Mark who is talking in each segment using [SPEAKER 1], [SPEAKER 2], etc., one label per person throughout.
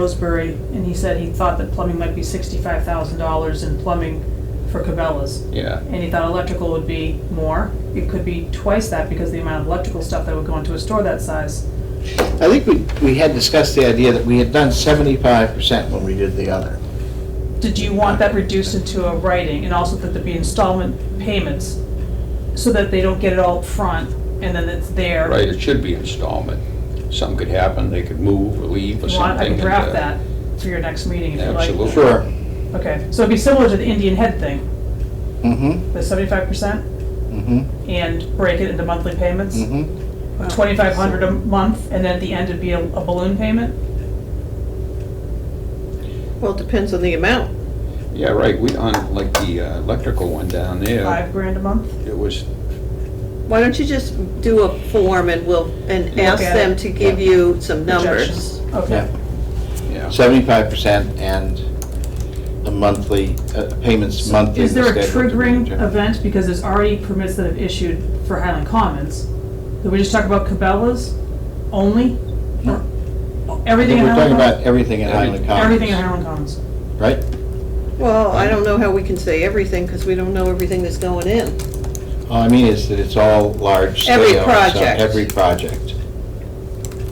[SPEAKER 1] Roseberry, and he said he thought that plumbing might be sixty-five thousand dollars in plumbing for Cabela's.
[SPEAKER 2] Yeah,
[SPEAKER 1] And he thought electrical would be more, it could be twice that because the amount of electrical stuff that would go into a store that size.
[SPEAKER 3] I think we, we had discussed the idea that we had done seventy-five percent when we did the other.
[SPEAKER 1] Did you want that reduced into a writing, and also that there be installment payments, so that they don't get it all up front and then it's there?
[SPEAKER 2] right, it should be installment. Something could happen, they could move or leave or
[SPEAKER 1] You want-
[SPEAKER 2] something.
[SPEAKER 1] I can
[SPEAKER 2] and,
[SPEAKER 1] draft
[SPEAKER 2] uh,
[SPEAKER 1] that for your next meeting if you like.
[SPEAKER 2] Absolutely.
[SPEAKER 3] Sure.
[SPEAKER 1] Okay, so it'd be similar to the Indian head thing,
[SPEAKER 3] Mm-hmm,
[SPEAKER 1] the seventy-five percent,
[SPEAKER 3] mm-hmm,
[SPEAKER 1] and break it into monthly payments?
[SPEAKER 3] mm-hmm.
[SPEAKER 1] twenty-five hundred a month, and then at the end it'd be a a balloon payment?
[SPEAKER 4] Well, it depends on the amount.
[SPEAKER 2] Yeah, right, we, on, like, the uh, electrical one down there,
[SPEAKER 1] Five grand a month?
[SPEAKER 2] it was,
[SPEAKER 4] Why don't you just do a form and we'll, and
[SPEAKER 1] Look
[SPEAKER 4] ask
[SPEAKER 1] at
[SPEAKER 4] them
[SPEAKER 1] it.
[SPEAKER 4] to give you some numbers?
[SPEAKER 1] Projections. Okay,
[SPEAKER 2] yeah.
[SPEAKER 3] Seventy-five percent and the monthly, uh, payments monthly.
[SPEAKER 1] is there a
[SPEAKER 3] schedule to be
[SPEAKER 1] triggering
[SPEAKER 3] determined.
[SPEAKER 1] event, because there's already permits that have issued for Highland Commons? Did we just talk about Cabela's only?
[SPEAKER 3] No. I
[SPEAKER 1] Everything in
[SPEAKER 3] think we're
[SPEAKER 1] Highland
[SPEAKER 3] talking
[SPEAKER 1] Commons?
[SPEAKER 3] about everything in Highland Commons.
[SPEAKER 1] Everything in Highland Commons.
[SPEAKER 3] Right?
[SPEAKER 4] Well, I don't know how we can say everything, because we don't know everything that's going in.
[SPEAKER 3] All I mean is that it's all large scale.
[SPEAKER 4] Every
[SPEAKER 3] so
[SPEAKER 4] project.
[SPEAKER 3] Every project. Uh,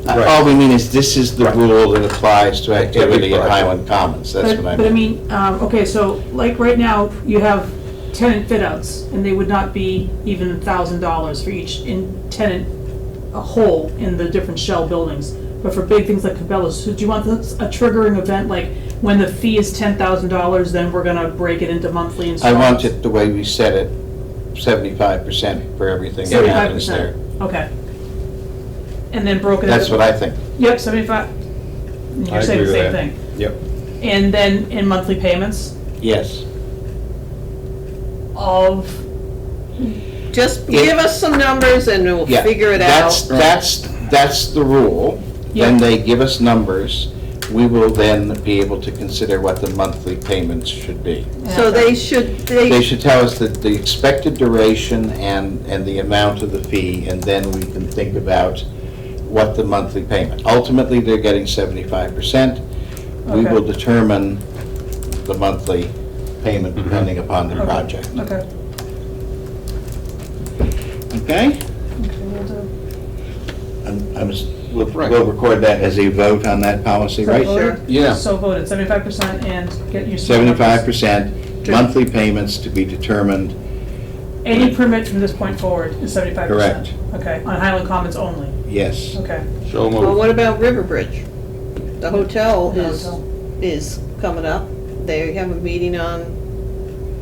[SPEAKER 2] Right.
[SPEAKER 3] All we mean is this is the
[SPEAKER 2] Right.
[SPEAKER 3] rule that applies to activity at
[SPEAKER 2] project.
[SPEAKER 3] Highland Commons, that's
[SPEAKER 1] But-
[SPEAKER 3] what I
[SPEAKER 1] But I
[SPEAKER 3] mean.
[SPEAKER 1] mean, um, okay, so like right now, you have tenant fit-outs, and they would not be even thousand dollars for each in tenant, a hole in the different shell buildings. But for big things like Cabela's, so do you want this- a triggering event, like when the fee is ten thousand dollars, then we're gonna break it into monthly
[SPEAKER 3] I
[SPEAKER 1] installments?
[SPEAKER 3] want it the way we said it, seventy-five percent for everything that
[SPEAKER 1] Seventy-five
[SPEAKER 3] happens there.
[SPEAKER 1] percent, okay. And then broken into.
[SPEAKER 3] That's what I think.
[SPEAKER 1] Yep, seventy-five, And
[SPEAKER 2] I
[SPEAKER 1] you're saying the
[SPEAKER 2] agree with
[SPEAKER 1] same
[SPEAKER 2] that.
[SPEAKER 1] thing.
[SPEAKER 2] Yep,
[SPEAKER 1] And then in monthly payments
[SPEAKER 3] Yes.
[SPEAKER 1] of,
[SPEAKER 4] Just
[SPEAKER 3] Yeah.
[SPEAKER 4] give us some numbers and we'll
[SPEAKER 3] Yeah.
[SPEAKER 4] figure it
[SPEAKER 3] That's,
[SPEAKER 4] out.
[SPEAKER 3] that's, that's the rule. Then
[SPEAKER 1] Yeah.
[SPEAKER 3] they give us numbers. We will then be able to consider what the monthly payments should be.
[SPEAKER 4] So they should,
[SPEAKER 3] They
[SPEAKER 4] they,
[SPEAKER 3] should tell us the, the expected duration and, and the amount of the fee, and then we can think about what the monthly payment. Ultimately, they're getting seventy-five percent. We
[SPEAKER 1] Okay.
[SPEAKER 3] will determine the monthly payment depending upon the
[SPEAKER 1] Okay.
[SPEAKER 3] project,
[SPEAKER 1] Okay.
[SPEAKER 3] okay? I'm, I'm, s- we'll, we'll record that as a vote on that policy, right?
[SPEAKER 4] Sure.
[SPEAKER 2] yeah,
[SPEAKER 1] So voted, seventy-five percent and get your.
[SPEAKER 3] Seventy-five percent, monthly payments to be determined,
[SPEAKER 1] Any permit from this point forward is seventy-five percent? Okay, on Highland Commons only,
[SPEAKER 3] yes.
[SPEAKER 1] okay.
[SPEAKER 2] so
[SPEAKER 4] well,
[SPEAKER 2] moved.
[SPEAKER 4] what about Riverbridge? The hotel
[SPEAKER 1] The
[SPEAKER 4] is,
[SPEAKER 1] hotel.
[SPEAKER 4] is coming up. They have a meeting on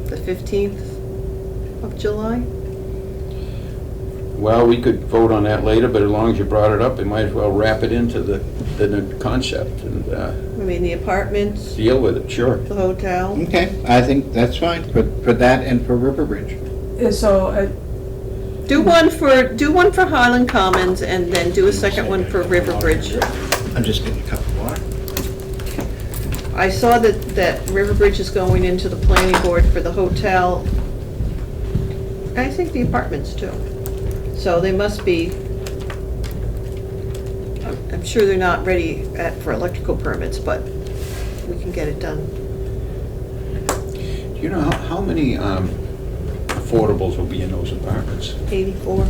[SPEAKER 4] the 15th of July?
[SPEAKER 2] Well, we could vote on that later, but as long as you brought it up, we might as well wrap it into the, the new concept and uh,
[SPEAKER 4] I mean, the apartments,
[SPEAKER 2] deal with it, sure.
[SPEAKER 4] the hotel.
[SPEAKER 3] Okay, I think that's fine, for, for that and for River Bridge.
[SPEAKER 1] Uh, So, uh,
[SPEAKER 4] Do one for, do one for Highland Commons and then do a second one for River Bridge.
[SPEAKER 3] I'm just getting a cup of water.
[SPEAKER 4] I saw that, that River Bridge is going into the planning board for the hotel. I think the apartments too. So they must be, I'm I'm sure they're not ready at- for electrical permits, but we can get it done.
[SPEAKER 2] Do you know how, how many um, affordables will be in those apartments?
[SPEAKER 4] 84,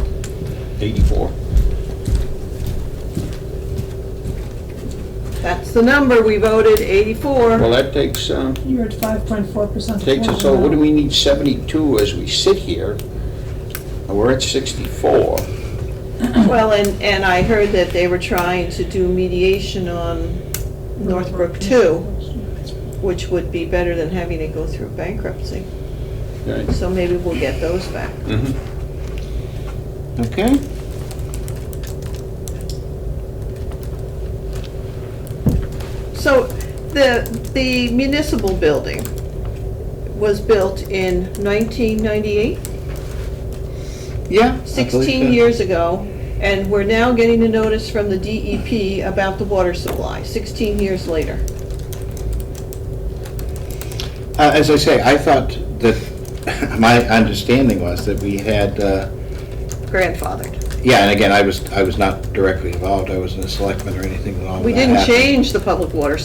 [SPEAKER 2] Eighty-four?
[SPEAKER 4] that's the number we voted, 84.
[SPEAKER 2] Well, that takes, um,
[SPEAKER 1] you're at five point four percent.
[SPEAKER 2] Takes us, so what do we need 72 as we sit here? And We're at 64.
[SPEAKER 4] Well, and, and I heard that they were trying to do mediation on Northbrook 2, which would be better than having it go through bankruptcy.
[SPEAKER 2] right?
[SPEAKER 4] So maybe we'll get those back.
[SPEAKER 3] Okay.
[SPEAKER 4] So the, the municipal building was built in 1998,
[SPEAKER 3] Yeah. I believe
[SPEAKER 4] 16
[SPEAKER 3] so.
[SPEAKER 4] years ago, and we're now getting a notice from the DEP about the water supply, 16 years later.
[SPEAKER 3] Uh, As I say, I thought that, my understanding was that we had, uh,
[SPEAKER 4] Grandfathered.
[SPEAKER 3] yeah, and again, I was, I was not directly involved, I wasn't a selectman or anything along Oh, that
[SPEAKER 4] We didn't
[SPEAKER 3] happened.
[SPEAKER 4] change the public water